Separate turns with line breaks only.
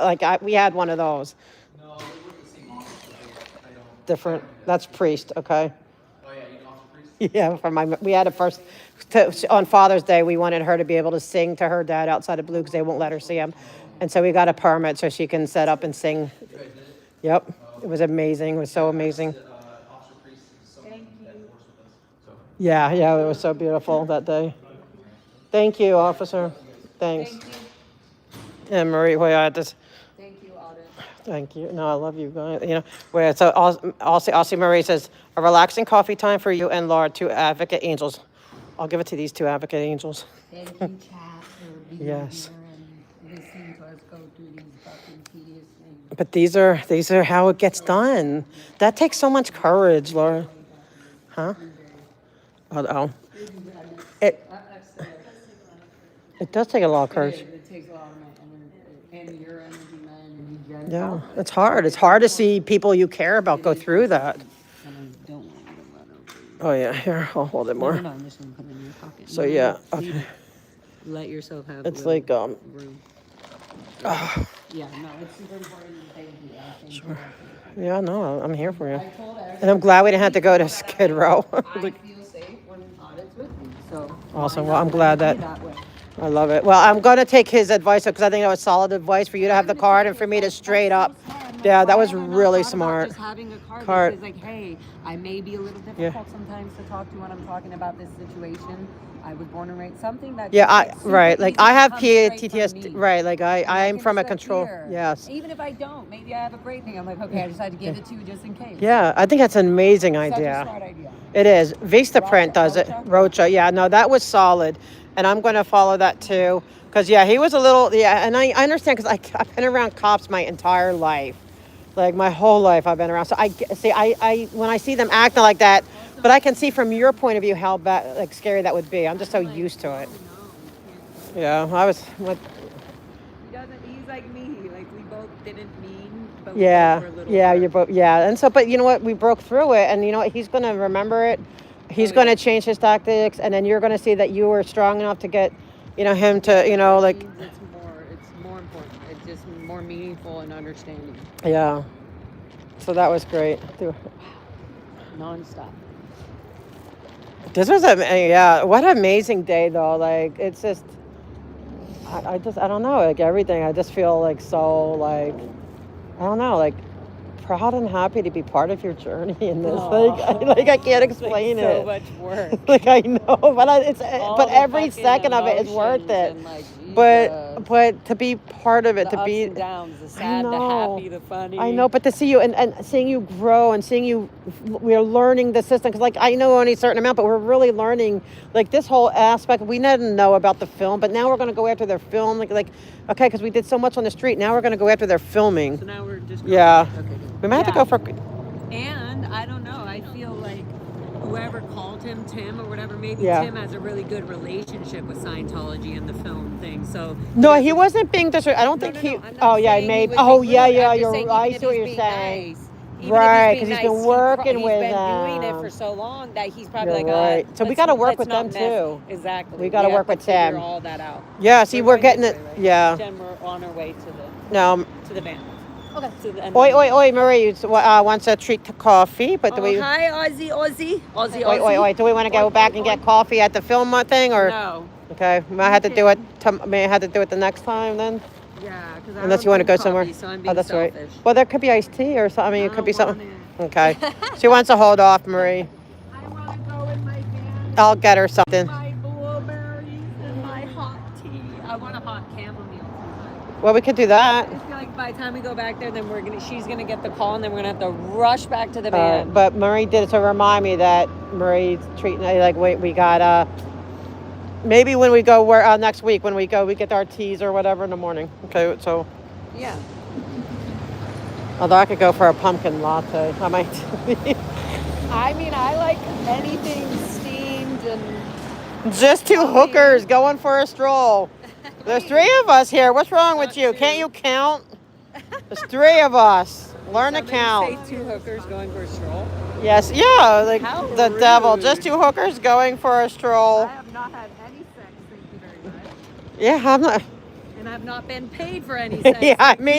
Like I, we had one of those.
No, they wouldn't see monsters. but they- I don't.
Different. That's priest. Okay.
Oh yeah, you know Officer Priest.
Yeah, for my, we had a first, to, on Father's Day, we wanted her to be able to sing to her dad outside of Blue because they won't let her see him. And so we got a permit so she can set up and sing. Yep, it was amazing, it was so amazing.
Uh, Officer Priest is someone that works with us. So.
Yeah, yeah, it was so beautiful that day. Thank you, officer. Thanks.
Thank you,
And Marie, wait, I had this,
thank you, Alden.
Thank you. No, I love you guys. You know, where uh, so Aussie, Aussie Marie says a relaxing coffee time for you and Laura, two advocate angels. I'll give it to these two advocate angels.
Thank you, Chad, for being
Yes.
here and listening to us go through these fucking tedious things.
But these are these are how it gets done. That takes so much courage, Laura. Huh? Oh, oh. It
I, I said,
it does take a lot of
it,
courage.
it takes a lot of my energy, and your energy, my energy, Jen's.
Yeah, it's hard. It's hard to see people you care about go through that.
And I don't want you to run over. you.
Oh yeah, here I'll hold it
No, no,
more.
no, I'm just gonna put it in your pocket.
So
No, no,
yeah,
no, leave
okay.
it. Let yourself have.
It's
room-
like, um,
Room. Yeah, no, it's super important, and thank you, I thank you.
Yeah, no, I'm here for you.
I told
And
her,
I'm glad we didn't have to go to Skid Row.
I feel safe when Alden's with me, so. why
Awesome.
not
Well, I'm
let
glad
it
that-
be way?
I love it. Well, I'm gonna take his advice because I think that was solid advice for you to have the card and for me to straight up. Yeah, that was really smart.
Just having a card,
Card.
that says like, hey, I may be a little difficult sometimes to talk to when I'm talking about this situation. I was born and raised something that.
Yeah,
just,
I
like, super
right. Like
easy
I
to
have
come straight from
PTSD.
me.
Right. Like I,
And I
I'm
can
from a
sit
control.
here.
Yes.
Even if I don't, maybe I have a great thing. I'm like, okay, I just had to give it to you just in case.
Yeah. I think that's an amazing
Such a
idea.
smart idea.
It is. Vista Print
Rocha-
does it.
Rocha?
Rocha. Yeah. No, that was solid, and I'm gonna follow that too. Cause yeah, he was a little. Yeah, and I, I understand. Cause I, I've been around cops my entire life. Like my whole life, I've been around. So I get- see. I, I when I see them acting like that. But I can see from your point of view how bad, like scary that would be. I'm just so used to it. Yeah, I was. What,
He doesn't. He's like me. Like we both didn't mean, but we both
Yeah,
were a little.
yeah,
hurt.
you're both. Yeah, and so, but you know what? We broke through it, and you know what? He's gonna remember it. He's
Oh,
gonna
yeah.
change his tactics, and then you're gonna see that you were strong enough to get, you know, him to, you know, Oh, like,
means it's more it's more important it's just more meaningful and understanding
yeah. So that was great. too.
nonstop
This was a yeah. What an amazing day, though. Like, it's just, I, I just, I don't know. Like everything, I just feel like so, like, I don't know, like. Proud and happy to be part of your journey in this. Like, I, like I can't explain
like, so
it.
much work
like I know, but I, it's eh,
All
but
the
every
fucking
second of it is worth
emotions
it.
and, like,
But
Jesus.
but to be part of it,
the
to
ups
be
and downs the sad the
know.
happy the funny
I know, but to see you and, and seeing you grow and seeing you, we're learning the system. Cause like I know only a certain amount, but we're really learning like this whole aspect. We didn't know about the film, but now we're gonna go after their film. Like like okay, cause we did so much on the street. Now we're gonna go after their
so
filming.
now we're just going
Yeah,
okay, good.
we might have
Yeah.
to go for
and i don't know i feel like whoever called him tim or whatever maybe
Yeah.
tim has a really good relationship with scientology and the film thing so
no. He wasn't being disrespectful. I don't
No,
think
no,
he.
no, I'm not
oh yeah,
saying he
maybe.
was
Oh
being
yeah,
rude.
yeah.
I'm just
You're.
saying
I
even
see
if
what you're
being
saying.
nice- even if he's
Right,
being
'cause he's been
he pro-
working with
He's been doing it
them.
for so long that he's probably
You're
like, uh,
right. So we
let's-
gotta work
let's
with
not
them
mess-
too.
Exactly.
We gotta
have
work
to
with
figure
Tim.
all that out.
Yeah, see, we're
going
getting
this
it.
way, right?
Yeah.
Tim, we're on our way to the
No.
to the van. Okay. To the, and
Oi,
then-
oi, oi, Marie, you s- uh, wants a treat to coffee, but do
Oh,
we.
hi, Aussie, Aussie, Aussie,
Wait, wait,
Aussie.
wait. Do we want to go
Oi,
back
oi,
and
oi.
get coffee at the film thing, or
No.
okay? May I have to do it. Tom, may I have to do it the next time then,
Yeah, because I
unless
don't
you want to
drink
go
coffee,
somewhere.
So I'm being
oh, that's
selfish.
right. Well, there could be iced tea or something. I mean,
I
it could
don't
be something.
want
Okay. she wants to hold off, Marie.
I want to go in my van
I'll get her something.
my blueberries and my hot tea.
I want a hot chamomile. Sometimes.
Well, we could do that.
I feel like by the time we go back there, then we're gonna she's gonna get the call, and then we're gonna have to rush back to the
Uh,
van.
but Marie did it to remind me that Marie's treating I like wait we got uh maybe when we go where uh, next week when we go we get our teas or whatever in the morning. Okay, so
yeah,
although I could go for a pumpkin latte, I might.
I mean, I like anything steamed and
Just two hookers going for a stroll. There's three of us here. What's wrong with
Not
you?
two.
Can't you count? There's three of us. Learn to count.
Say two hookers going for a stroll.
Yes, yeah, like
How
the devil.
rude.
Just two hookers going for a stroll.
have not had any sex, thank you very much,
Yeah, I'm not.
and I've not been paid for any sex.
yeah, I mean.